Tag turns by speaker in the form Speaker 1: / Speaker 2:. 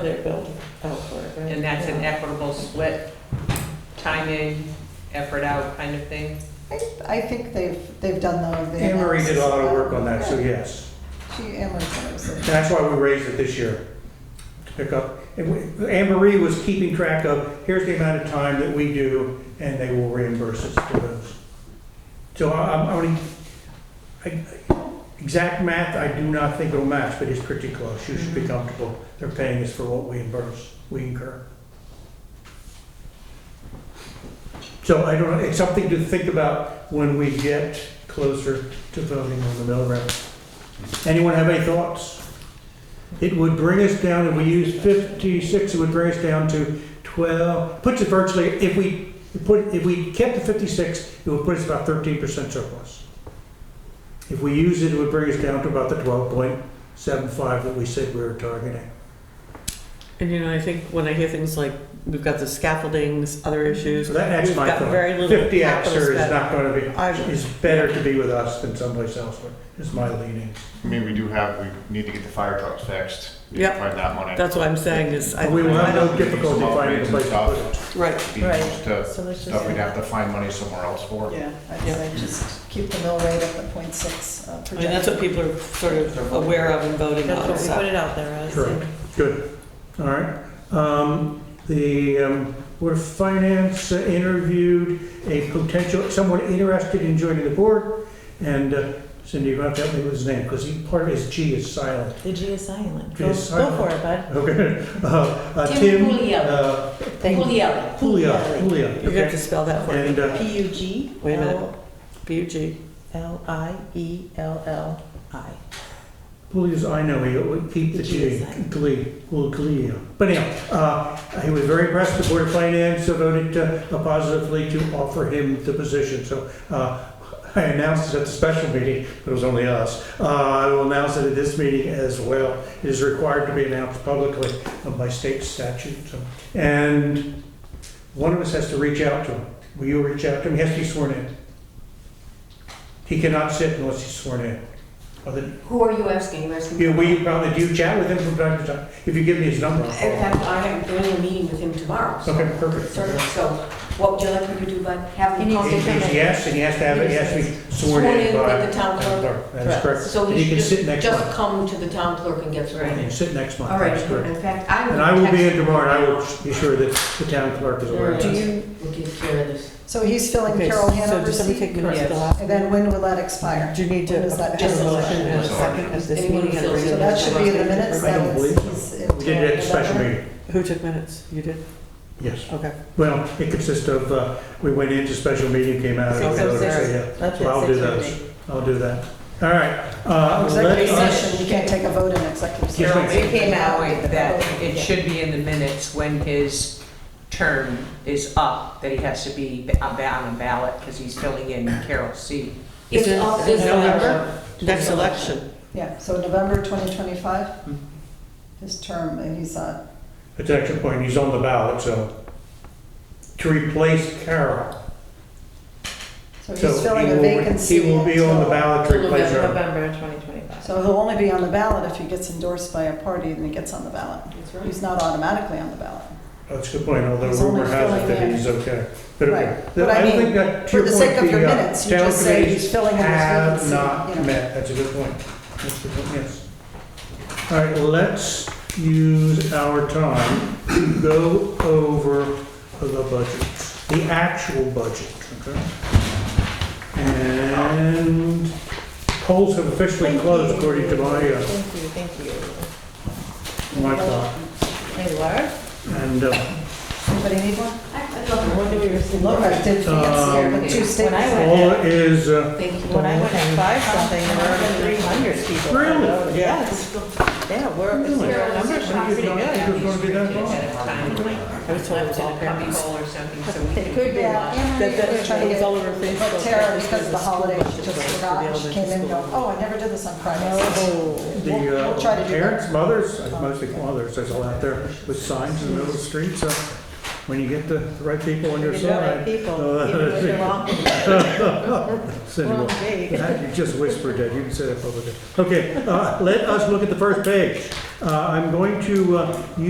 Speaker 1: here,
Speaker 2: they're built out for it, right?
Speaker 3: And that's an equitable split, time in, effort out kind of thing.
Speaker 4: I I think they've, they've done those. they
Speaker 1: Anne Marie did a lot of
Speaker 4: announced-
Speaker 1: work on that, so yes.
Speaker 4: She, Anne Marie said it was a-
Speaker 1: That's why we raised it this year, to pick up. And we- Anne Marie was keeping track of, here's the amount of time that we do, and they will reimburse us for those. So I- I'm, only- I- exact math, I do not think it'll match, but it's pretty close. You should be comfortable. They're paying us for what we reimburse, we incur. So I don't, know. it's something to think about when we get closer to voting on the mill rate. Anyone have any thoughts? It would bring us down, if we use fifty-six, it would bring us down to twelve, puts it virtually, if we put, if we kept the fifty-six, it would put us about thirteen percent surplus. If we use it, it would bring us down to about the twelve point seven five that we said we were targeting.
Speaker 2: And you know, I think when I hear things like, we've got the scaffoldings, other issues.
Speaker 1: So that- that's
Speaker 2: we've
Speaker 1: my
Speaker 2: got
Speaker 1: thought.
Speaker 2: Very little
Speaker 1: Fifty
Speaker 2: capital
Speaker 1: Xer is
Speaker 2: spent.
Speaker 1: not gonna
Speaker 2: I'm-
Speaker 1: be, is better to be with us than someplace else, is my leanings.
Speaker 5: I mean, we do have, we need to get the fire trucks fixed. We need to
Speaker 2: Yep.
Speaker 5: Find that money.
Speaker 2: That's what I'm saying is. I-
Speaker 1: But we will have
Speaker 5: We
Speaker 1: no
Speaker 5: need
Speaker 1: difficulty
Speaker 5: some
Speaker 1: finding a
Speaker 5: upgrades and
Speaker 1: place to
Speaker 5: stuff.
Speaker 1: put it.
Speaker 2: Right,
Speaker 5: Be
Speaker 4: Right.
Speaker 5: used to-
Speaker 4: So let's
Speaker 5: Stuff we'd have
Speaker 4: just,
Speaker 5: to find money somewhere else for.
Speaker 4: yeah, I'd say just keep the mill rate at the point six uh,
Speaker 2: I mean, that's what
Speaker 4: projection.
Speaker 2: people are sort of aware of and voting
Speaker 3: That's
Speaker 2: on,
Speaker 3: what we put
Speaker 2: so.
Speaker 3: it out there as.
Speaker 1: Correct, good, all right. Um, The um, Board of Finance interviewed a potential, someone interested in joining the board, and uh, Cindy, you have to help me with his name, because he, part of his G is silent.
Speaker 2: The G is silent.
Speaker 1: Go- G is go silent. for
Speaker 2: it, bud.
Speaker 1: Okay. Uh, uh,
Speaker 6: Tim
Speaker 1: Tim.
Speaker 6: Puglia.
Speaker 1: uh,
Speaker 6: Julia.
Speaker 1: Puglia, Puglia,
Speaker 2: You have to
Speaker 1: okay.
Speaker 2: spell that for me.
Speaker 1: And uh,
Speaker 2: P U G. Wait a minute. P U G. L I E L L I.
Speaker 1: Puglia's, I know, he would keep the
Speaker 2: The G is
Speaker 1: G,
Speaker 2: silent.
Speaker 1: Glee, Glee. But anyhow, uh, he was very impressed, the Board of Finance voted uh, positively to offer him the position, so uh, I announced it at the special meeting, but it was only us. Uh, I will announce it at this meeting as well. It is required to be announced publicly uh, by state statute, so. And one of us has to reach out to him. Will you reach out to him? He has to be sworn in. He cannot sit unless he's sworn in. Other-
Speaker 6: Who are you asking? You're asking.
Speaker 1: yeah, we probably do chat with him from time to time. If you give me his number. I'll
Speaker 6: In
Speaker 1: call him.
Speaker 6: fact, I have doing a meeting with him tomorrow. so-
Speaker 1: Okay, perfect.
Speaker 6: So, so what would you like me to do, but have him
Speaker 1: He-
Speaker 6: call
Speaker 1: He's yes, and he has to have, it. he has to be sworn
Speaker 6: Sworn
Speaker 1: in
Speaker 6: in
Speaker 1: by.
Speaker 6: with the town clerk.
Speaker 1: That is correct.
Speaker 6: So
Speaker 1: And he
Speaker 6: he
Speaker 1: can sit
Speaker 6: should
Speaker 1: next
Speaker 6: just, just
Speaker 1: month.
Speaker 6: come to the town clerk and get sworn
Speaker 1: He can
Speaker 6: in.
Speaker 1: sit next month,
Speaker 6: All right,
Speaker 1: that's correct.
Speaker 6: in fact, I will.
Speaker 1: And I will be
Speaker 6: text
Speaker 1: in tomorrow, and I
Speaker 6: him.
Speaker 1: will be sure that the town clerk is aware of
Speaker 6: Do
Speaker 1: that.
Speaker 2: you?
Speaker 6: We'll take care of this.
Speaker 4: So he's filling
Speaker 2: Okay,
Speaker 4: Carol
Speaker 2: so
Speaker 4: Hanover's
Speaker 2: does somebody
Speaker 4: seat,
Speaker 2: take minutes of the
Speaker 3: Yes.
Speaker 2: last?
Speaker 4: and then when will that expire?
Speaker 2: Do you need to
Speaker 4: When does
Speaker 2: have
Speaker 4: that
Speaker 2: a
Speaker 4: happen?
Speaker 2: motion and a second at this
Speaker 6: Anyone
Speaker 2: meeting? and a
Speaker 6: feels
Speaker 4: So
Speaker 2: regular
Speaker 4: that should be in the
Speaker 2: meeting?
Speaker 4: minutes,
Speaker 1: I
Speaker 4: that
Speaker 1: don't
Speaker 4: was,
Speaker 1: believe
Speaker 4: he's. uh,
Speaker 1: We did it at the special meeting,
Speaker 2: Who took minutes? You did?
Speaker 1: yes.
Speaker 2: Okay.
Speaker 1: Well, it consists of, uh, we went into special meeting, came out. and
Speaker 2: Six oh
Speaker 1: voted, so
Speaker 2: six.
Speaker 1: yeah.
Speaker 2: That's
Speaker 1: So I'll do those. I'll do that. All right. uh,
Speaker 4: Executive
Speaker 1: let us-
Speaker 4: session, you can't take a vote in
Speaker 1: Yes,
Speaker 4: executive session.
Speaker 3: Carol
Speaker 1: ma'am.
Speaker 3: made the
Speaker 4: Came out.
Speaker 3: point that it should be in the minutes when his term is up, that he has to be ba- on a ballot because he's filling in Carol's seat.
Speaker 2: Is
Speaker 6: It's
Speaker 2: it
Speaker 6: all this
Speaker 2: November?
Speaker 6: November.
Speaker 2: Next election.
Speaker 4: Yeah, so November 2025,
Speaker 3: Hmm.
Speaker 4: his term, uh, and he's on.
Speaker 1: It's actually point, he's on the ballot, so to replace Carol.
Speaker 4: So
Speaker 1: So
Speaker 4: he's filling
Speaker 1: he
Speaker 4: a
Speaker 1: will-
Speaker 4: vacancy.
Speaker 1: He will be on the
Speaker 4: until-
Speaker 1: ballot to replace her.
Speaker 3: November 2025.
Speaker 4: So he'll only be on the ballot if he gets endorsed by a party and he gets on the ballot.
Speaker 6: That's right.
Speaker 4: He's not automatically on the ballot.
Speaker 1: That's a good point, although
Speaker 4: He's only
Speaker 1: rumor has it
Speaker 4: filling
Speaker 1: that
Speaker 4: in.
Speaker 1: he's okay. But
Speaker 4: Right.
Speaker 1: okay.
Speaker 4: But I
Speaker 1: don't
Speaker 4: mean,
Speaker 1: think that- to
Speaker 4: For the
Speaker 1: point
Speaker 4: sake of your
Speaker 1: being, uh,
Speaker 4: minutes, you
Speaker 1: town
Speaker 4: just say he's
Speaker 1: committees
Speaker 4: filling in his vacancy.
Speaker 1: Have not
Speaker 4: you know.
Speaker 1: met, that's a good point. That's a good point, yes. All right, let's use our time to go over the budget, the actual budget, okay? And polls have officially closed according to my, uh,
Speaker 6: Thank you, thank you.
Speaker 1: my clock.
Speaker 6: Hey, Laura?
Speaker 1: And uh,
Speaker 4: Anybody need one?
Speaker 6: I'd love to.
Speaker 4: Look, I
Speaker 1: Um,
Speaker 4: did fancy, but
Speaker 6: when I
Speaker 4: two staples.
Speaker 6: went-
Speaker 1: all is, uh,
Speaker 6: Thank you.
Speaker 7: When I went at five something, there were over three hundred people.
Speaker 1: Really?
Speaker 7: Yes. Yeah, we're, our numbers are pretty good.
Speaker 1: It's gonna be that long.
Speaker 2: I was told it was all
Speaker 3: Copy
Speaker 2: parents.
Speaker 3: or something, so we can.
Speaker 7: Could be.
Speaker 4: Yeah, Anne Marie
Speaker 2: That, that
Speaker 4: was trying to
Speaker 2: it was
Speaker 4: get,
Speaker 2: all over Facebook.
Speaker 4: but Tara, because of the holiday, she just forgot, she came in and go, oh, I never did this on Friday.
Speaker 7: Oh.
Speaker 1: The
Speaker 4: We'll-
Speaker 1: uh,
Speaker 4: we'll try to do that.
Speaker 1: parents, mothers, uh, mostly mothers, there's all out there with signs in the middle of the street, so when you get the the right people on your
Speaker 7: You're the right
Speaker 1: side.
Speaker 7: people,
Speaker 1: uh,
Speaker 7: even if they're wrong,
Speaker 1: Cindy will-
Speaker 7: wrong date.
Speaker 1: That- You just whispered that, you can say that publicly. Okay, uh, let us look at the first page. Uh, I'm going to uh,